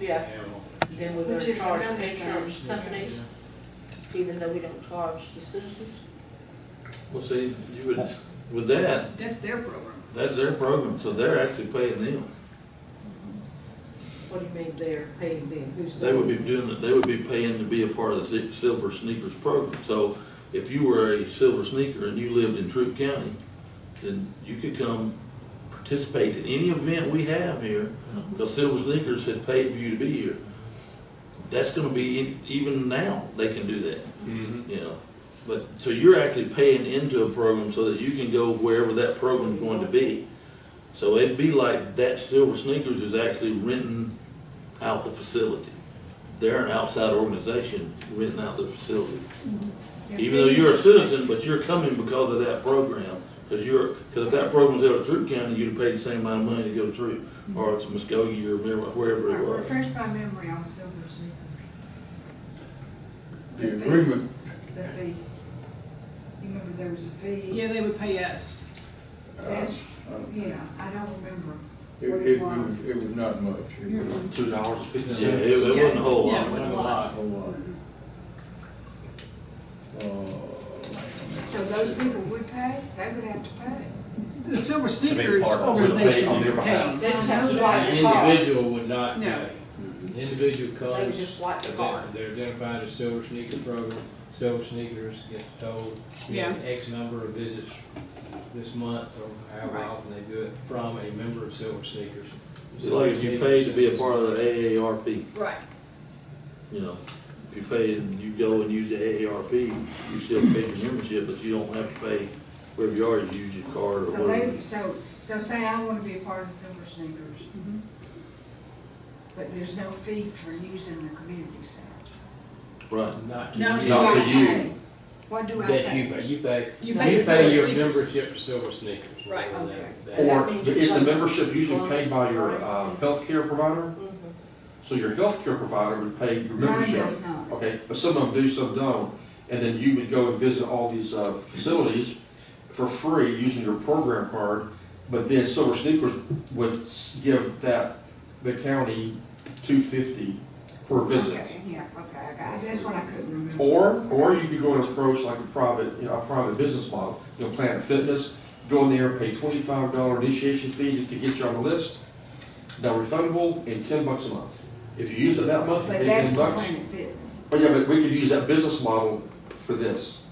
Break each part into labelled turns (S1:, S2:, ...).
S1: Yeah, then we're gonna
S2: Which is
S1: charge
S2: another
S1: insurance companies, even though we don't charge the citizens.
S3: Well, see, you would, with that,
S2: That's their program.
S3: that's their program, so they're actually paying them.
S1: What do you mean they're paying them? Who's
S3: They would be doing, they would be paying to be a part of the Si- Silver Sneakers program. So if you were a Silver Sneaker and you lived in Troop County, then you could come participate in any event we have here, because Silver Sneakers has paid for you to be here. That's gonna be, in- even now, they can do that.
S4: Mm-hmm.
S5: Mhm.
S3: you know. But, so you're actually paying into a program so that you can go wherever that program's going to be. So it'd be like that Silver Sneakers is actually renting out the facility. They're an outside organization renting out the facility. Even though you're a citizen, but you're coming because of that program. Because you're, because if that program's out of Troop County, you'd have paid the same amount of money to go to Troop, or to Muskogee or wherever it was.
S2: Refresh my memory on Silver Sneaker.
S5: The agreement,
S2: The fee. You remember there was a fee?
S6: Yeah, they would pay us.
S5: uh,
S2: Yeah, I don't remember.
S5: it, it was, Mm-hmm. it was not much. It was a
S4: Two dollars and fifty
S3: Yeah, it it wasn't a whole lot.
S6: Yeah, a lot.
S5: whole lot. Uh,
S2: So those people would pay, they would have to pay.
S6: The Silver
S4: be
S6: Sneakers
S4: part of it. On
S6: organization
S4: their behalf.
S1: They
S6: pays.
S1: just have to swipe
S7: An
S1: the card.
S7: individual would not pay.
S6: No.
S7: An individual
S1: They would
S7: comes,
S1: just swipe the card.
S7: they're identified as Silver Sneaker Program, Silver Sneakers gets told, you know, X number of visits this month or however
S6: Right.
S7: often they do it from a member of Silver Sneakers.
S3: It's like if you paid to be a part of the AARP.
S6: Right.
S3: you know, if you pay and you go and use the AARP, you still pay your membership, but you don't have to pay wherever you are, you use your card or
S2: So they,
S3: whatever.
S2: so, so say I wanna be a part of the Silver Sneakers.
S6: Mm-hmm.
S2: But there's no fee for using the community center.
S3: Right.
S7: Not to
S6: Not to
S7: you.
S3: Not to
S2: I
S3: you.
S2: pay? What do I
S7: That you
S2: pay?
S7: pay, you pay,
S6: You
S7: you
S6: pay to
S7: pay
S6: Silver
S7: your
S6: Sneakers.
S7: membership to Silver Sneakers.
S6: Right,
S7: whatever
S2: okay.
S7: that- that-
S4: Or is the membership usually paid by your um, healthcare provider?
S1: Mm-hmm.
S4: So your healthcare provider would pay your
S2: Mine
S4: membership.
S2: does not.
S4: Okay, but some of them do, some don't. And then you would go and visit all these uh, facilities for free using your program card. But then Silver Sneakers would s- give that, the county, two fifty per visit.
S2: Okay, yeah, okay, I got it. That's what I couldn't remember.
S4: Or, or you could go and approach like a private, you know, a private business model, you know, Planet Fitness, go in there and pay twenty-five dollar initiation fee just to get you on the list, non-refundable, and ten bucks a month. If you use it that month, you
S2: But
S4: pay ten
S2: that's the
S4: bucks.
S2: Planet Fitness.
S4: But yeah, but we could use that business model for this.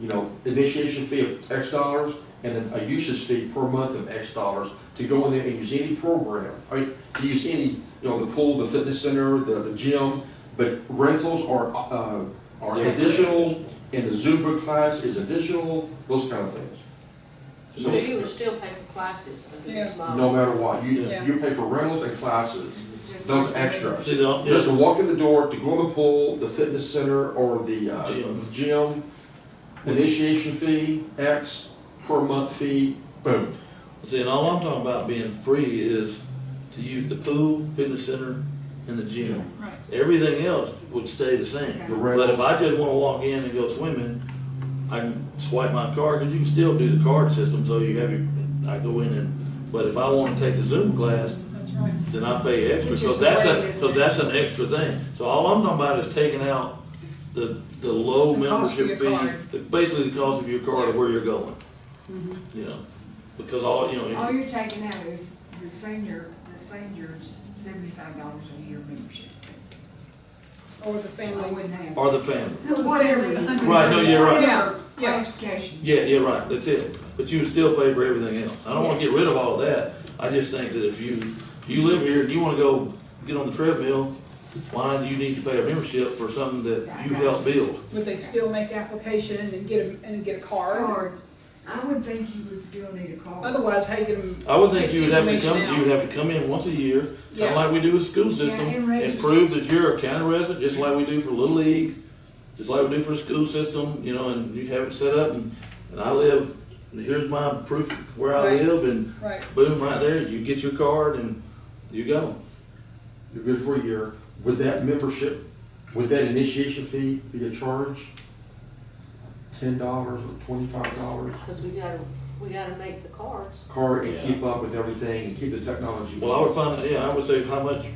S4: You know, initiation fee of X dollars, and then a usage fee per month of X dollars to go in there and use any program. I mean, to use any, you know, the pool, the fitness center, the, the gym, but rentals are, uh, are additional, and the Zumba class is additional, those kind of things.
S1: So you would
S4: So,
S1: still pay for classes under
S6: Yeah.
S1: this model?
S4: no matter what, you,
S6: Yeah.
S4: you pay for rentals and classes,
S2: This is just.
S4: those
S2: like-
S4: extra.
S3: See, the-
S4: Just to walk in the door, to go in the pool, the fitness center, or the uh,
S3: Gym.
S4: gym, initiation fee, X, per month fee, boom.
S3: see, and all I'm talking about being free is to use the pool, fitness center, and the gym.
S6: Right.
S3: Everything else would stay the same.
S4: The
S3: But if
S4: rentals,
S3: I just wanna walk in and go swimming, I can swipe my card, cause you can still do the card system, so you have your, I go in and, but if I wanna take the Zoom class,
S6: That's right.
S3: then I pay extra,
S2: Which is
S3: because that's
S2: the way it
S3: a,
S2: is
S3: so
S2: now.
S3: that's an extra thing. So all I'm talking about is taking out the, the low
S6: The cost of
S3: membership
S6: your
S3: fee,
S6: card.
S3: the- basically the cost of your card of where you're going. You know, because all, you
S2: All
S3: know,
S2: you're taking out is the senior, the senior's seventy-five dollars a year membership.
S6: Or the
S2: I wouldn't
S6: families.
S2: have.
S3: or the family.
S2: Whatever. you-
S3: Right, no, you're right.
S2: Whatever
S6: Yeah.
S2: Classification.
S3: Yeah, yeah, right, that's it. But you would still pay for everything else. I don't wanna get rid of all of that. I just think that if you, if you live here and you wanna go get on the treadmill, why do you need to pay a membership for something that you helped build?
S6: Would they still make application and get a, and get a card?
S2: Card, I would think you would still need a card.
S6: Otherwise, how you get them?
S3: I would think
S6: get
S3: you would have to
S6: information
S3: come,
S6: out?
S3: you would have to come in once a year, kinda
S6: Yeah.
S3: like we do with school system,
S2: and
S3: and
S2: register.
S3: prove that you're a county resident, just like we do for Little League, just like we do for the school system, you know, and you have it set up, and, and I live, and here's my proof of where I
S6: Right.
S3: live, and
S6: Right.
S3: boom, right there, you get your card and you go.
S4: you're good for a year. Would that membership, would that initiation fee be a charge? Ten dollars or twenty-five dollars?
S1: Because we gotta, we gotta make the cards.
S4: Card and keep up with everything and keep the technology.
S3: Well, I would find, yeah, I would say, how much